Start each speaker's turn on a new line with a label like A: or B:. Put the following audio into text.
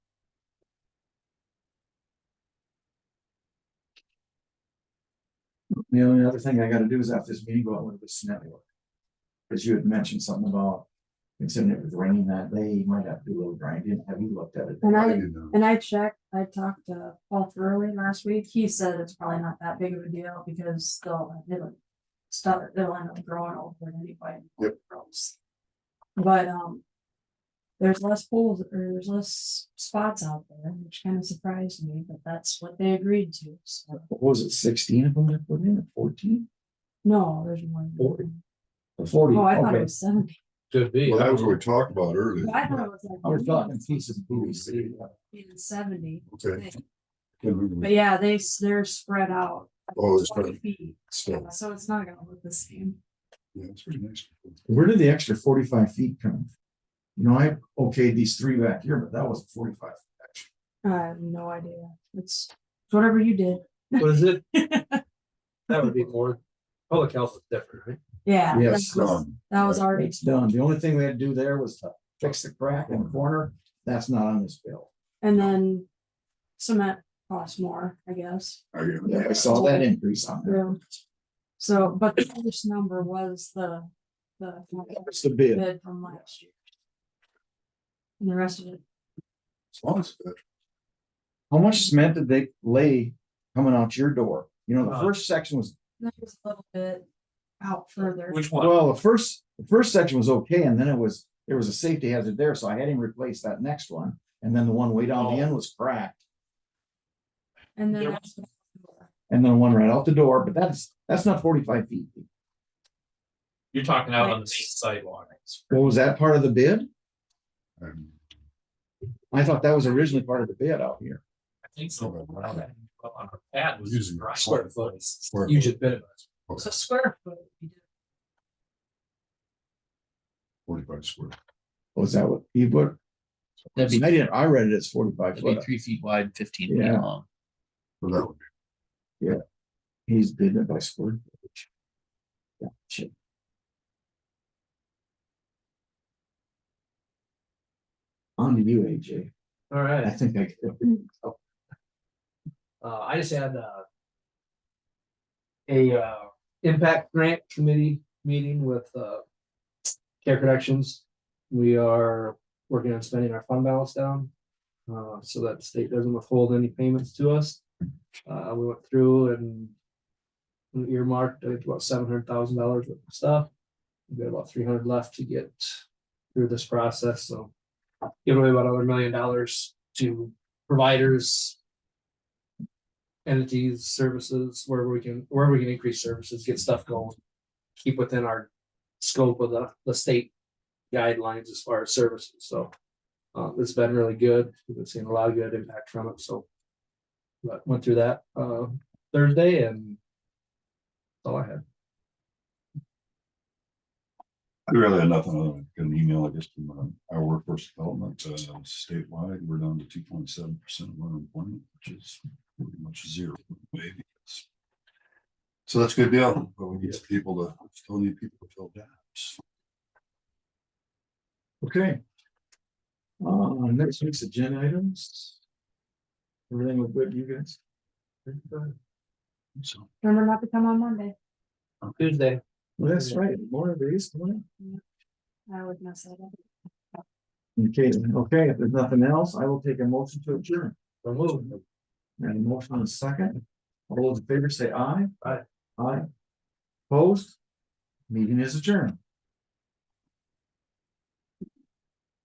A: The only other thing I gotta do is after this meeting, go out with the scenario. Cause you had mentioned something about, considering it was raining that day, you might have to do a little grinding, have you looked at it?
B: And I,
C: didn't know.
B: and I checked, I talked to Paul Thurley last week, he said it's probably not that big of a deal because they'll, they'll. Stuff, they'll end up growing over it anyway.
C: Yep.
B: Grows. But, um. There's less holes, or there's less spots out there, which kind of surprised me, but that's what they agreed to, so,
A: What was it, sixteen of them that put in, fourteen?
B: no, there's one.
A: Forty. Forty,
B: Oh, I thought it
A: okay.
B: was seventy,
D: Could be.
C: Well, that was what we talked about earlier.
B: I thought it was like.
A: I was talking pieces of PVC.
B: in Seventy,
C: Okay.
B: but yeah, they, s- they're spread out.
C: Oh, it's
B: 20
C: pretty-
B: feet,
C: So,
B: So it's not gonna look the same.
C: yeah, it's pretty nice.
A: Where did the extra forty-five feet come? from? You know, I okayed these three back here, but that was forty-five.
B: I have no idea. It's it's whatever you did.
D: What is it? That would be more, public health is different, right?
B: Yeah. that
A: Yes,
B: was-
C: Um,
B: That was already,
A: It's done. The only thing we had to do there was to fix the crack in the corner. That's not on this bill.
B: and then cement costs more, I guess.
C: I get it.
A: Yeah, I saw that increase on there.
B: Yeah. So, but the first number was the, the
A: It's the bid.
B: bid from last year. And the rest of it,
C: As long as that-
A: How much cement did they lay coming out your door? You know, the
D: Uh.
A: first section was,
B: that was a little bit out further.
D: Which one?
A: well, the first, the first section was okay, and then it was, there was a safety hazard there, so I had him replace that next one. And then the one way down
E: Oh.
A: the end was cracked,
B: And then.
D: There-
B: that's-
A: and then one right out the door, but that's, that's not forty-five feet.
F: You're talking out on the main sidewalk.
A: Well, was that part of the bid?
C: um,
A: I thought that was originally part of the bid out here.
F: I think so.
C: Oh, wow.
F: Up On a pad was.
C: Using
F: grind.
C: square
D: foot.
C: square
D: You
C: foot.
D: just bid it.
B: So square foot. you did.
C: Forty-five square.
A: Was that what he put? I
E: That'd be,
A: didn't, I read it as forty-five
E: that'd be
A: foot.
E: three feet wide, fifteen feet
A: Yeah.
E: long.
C: So that would be-
A: He's bidding it by square. footage. Gotcha. On to you, AJ.
D: All
A: I
D: right,
A: think I,
D: uh, I just had, uh. A, uh, impact grant committee meeting with, uh. Care Productions. We are working on spending our fund balance down. Uh, so that the state doesn't withhold any payments to us. Uh, we went through and. we Earmarked, I think about seven hundred thousand dollars worth of stuff. We've got about three hundred left to get through this process, so. Give away about another million dollars to providers. Entities, services, wherever we can, wherever we can increase services, get stuff going. Keep within our scope of the, the state guidelines as far as services, so. Um, it's been really good. We've been seeing a lot of good impact from it, so. But went through that, uh, Thursday and. that's All I had.
C: I really had nothing other than get an email, I guess, from um, our workforce development, uh, statewide, we're down to two point seven percent of unemployment, which is pretty much zero. maybe. So that's a good deal, but we need some people to, still need people to fill jobs.
A: okay. Uh, next week's agenda items. Everything look good, to you guys?
C: So,
B: Remember not to come on Monday.
D: Tuesday.
A: Well, that's right, more of these, come on.
B: I would mess that up.
A: Okay, okay, if there's nothing else, I will take a motion to adjourn.
D: Remove.
A: And a motion on a second. All those in favor say aye.
D: Aye.
A: Aye. Opposed? Meeting is adjourned.